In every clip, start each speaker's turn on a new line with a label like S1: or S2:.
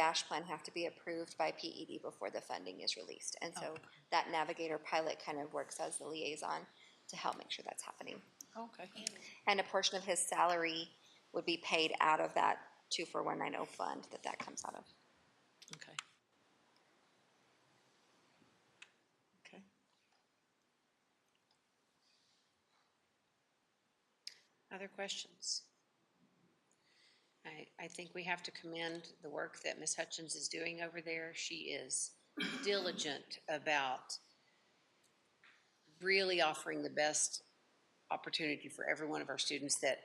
S1: dash plan have to be approved by PED before the funding is released. And so that navigator pilot kind of works as the liaison to help make sure that's happening.
S2: Okay.
S1: And a portion of his salary would be paid out of that two four one nine oh fund that that comes out of.
S2: Okay. Okay.
S3: Other questions? I, I think we have to commend the work that Ms. Hutchins is doing over there. She is diligent about really offering the best opportunity for every one of our students that,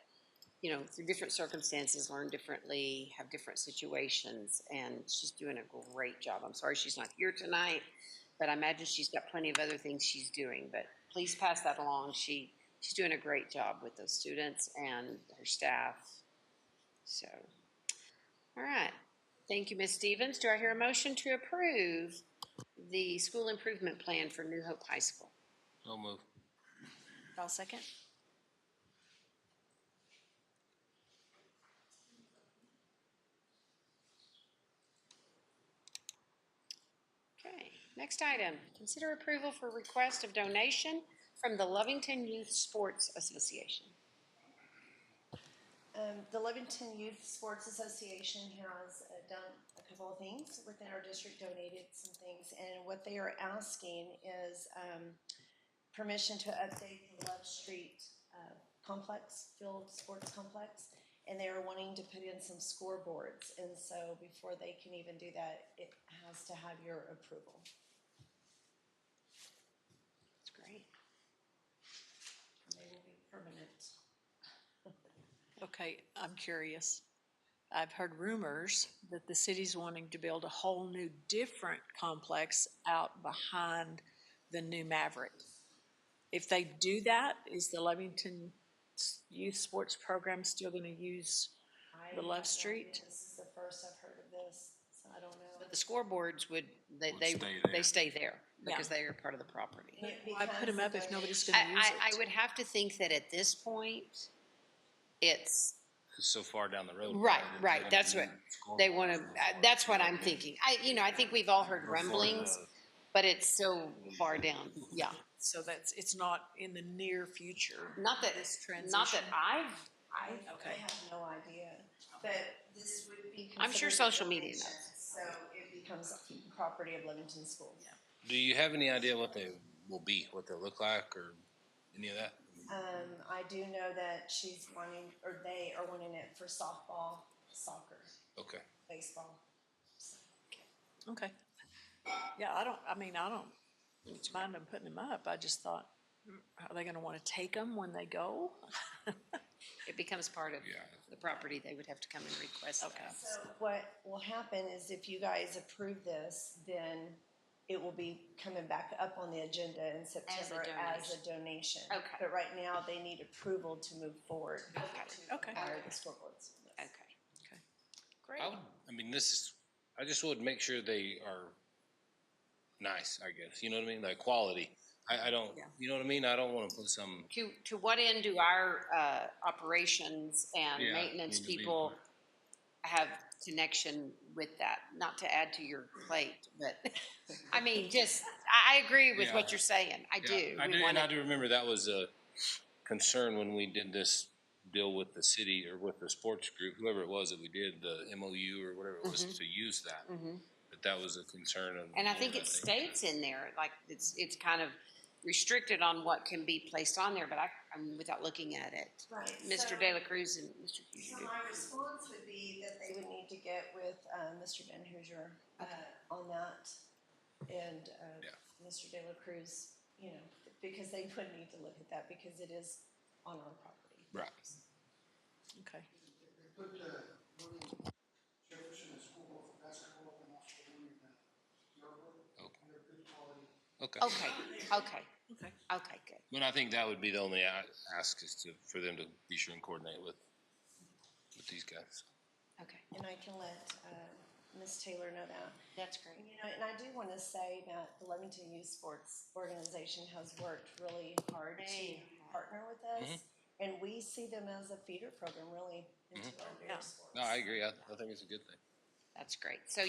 S3: you know, through different circumstances, learn differently, have different situations, and she's doing a great job. I'm sorry she's not here tonight, but I imagine she's got plenty of other things she's doing, but please pass that along. She, she's doing a great job with those students and her staff. So, all right. Thank you, Ms. Stevens. Do I hear a motion to approve the school improvement plan for New Hope High School?
S4: No move.
S2: I'll second.
S3: Okay, next item, consider approval for request of donation from the Lovington Youth Sports Association.
S5: Um, the Levington Youth Sports Association has uh, done a couple of things within our district, donated some things, and what they are asking is um, permission to update the Love Street uh, complex, field sports complex, and they are wanting to put in some scoreboards, and so before they can even do that, it has to have your approval.
S3: That's great.
S5: They will be permanent.
S2: Okay, I'm curious. I've heard rumors that the city's wanting to build a whole new, different complex out behind the new Maverick. If they do that, is the Levington s- Youth Sports Program still gonna use?
S5: I
S2: The Love
S5: have no idea.
S2: Street?
S5: This is the first I've heard of this, so I don't know.
S3: But the scoreboards would, they,
S4: Would
S3: they,
S4: stay
S3: they
S4: there.
S3: stay there
S2: Yeah.
S3: because they are part of the property.
S5: It
S2: Why put
S5: becomes
S2: them up
S5: a
S2: if nobody's
S3: I,
S2: gonna use
S3: I, I
S2: it?
S3: would have to think that at this point, it's,
S4: It's so far down the road.
S3: Right,
S4: that
S3: right,
S4: they don't
S3: that's what-
S4: need scoreboards
S3: they want to, uh,
S4: before
S3: that's what
S4: it's
S3: I'm
S4: done.
S3: thinking. I, you know, I think we've all heard
S4: Before the-
S3: rumblings, but it's so far down, yeah.
S2: So that's, it's not in the near future.
S3: Not that,
S2: This
S3: not that
S2: transition.
S3: I've
S5: I, I
S2: Okay.
S5: have no idea, but this would be.
S3: I'm sure
S5: considered
S3: social media
S5: donation, So it becomes property of Livingston Schools.
S4: Do you have any idea what they will be, what they'll look like, or any of that?
S5: Um, I do know that she's wanting, or they are wanting it for softball, soccer,
S4: Okay.
S5: baseball.
S2: Okay. Yeah, I don't, I mean, I don't mind them putting them up. I just thought, mm, are they gonna wanna take them when they go?
S3: it becomes part of
S4: Yeah.
S3: the property, they would have to come and request
S2: Okay.
S3: that.
S5: So what will happen is if you guys approve this, then it will be coming back up on the agenda in September as a donation.
S3: Okay.
S5: But right now, they need approval to move forward. to
S2: Okay.
S5: acquire the scoreboards.
S3: Okay.
S2: Great.
S4: I would, I mean, this is, I just would make sure they are nice, I guess. You know what I mean? Like quality. I, I don't,
S2: Yeah.
S4: you know what I mean? I don't want to put some,
S3: To, to what end do our, uh, operations and
S4: Yeah,
S3: maintenance
S4: need to be-
S3: people have connection with that? Not to add to your plate, but, I mean, just, I, I agree with what
S4: Yeah.
S3: you're saying, I
S4: Yeah,
S3: do.
S4: I
S3: We
S4: do, and
S3: wanna-
S4: I do remember that was a concern when we did this deal with the city or with the sports group, whoever it was that we did, the MOU or whatever it was,
S3: Mm-hmm.
S4: to use that.
S3: Mhm.
S4: But that was a concern of.
S3: And I think it states in there, like, it's, it's kind of restricted on what can be placed on there, but I, I'm, without looking at it.
S5: Right. so-
S3: Mr. De La Cruz and Mr.
S5: So
S3: Fugere.
S5: my response would be that they would need to get with, uh, Mr. Ben Hoosier, uh, on that. And, uh,
S4: Yeah.
S5: Mr. De La Cruz, you know, because they would need to look at that because it is on our property.
S4: Right.
S2: Okay.
S6: Put the William Jefferson School of Basketball and also William Yarborough, and they're good quality.
S4: Okay.
S3: Okay, okay,
S2: Okay.
S3: okay, good.
S4: But I think that would be the only a- ask is to, for them to be sure and coordinate with, with these guys.
S3: Okay,
S5: And I can let, uh, Ms. Taylor know that.
S3: that's
S5: And,
S3: great.
S5: You know, and I do want to say that the Levington Youth Sports Organization has worked really hard to
S3: They
S5: partner with us. And we see them as a feeder program really into our
S2: Yeah.
S5: various sports.
S4: No, I agree. I, I think it's a good thing.
S3: That's great. So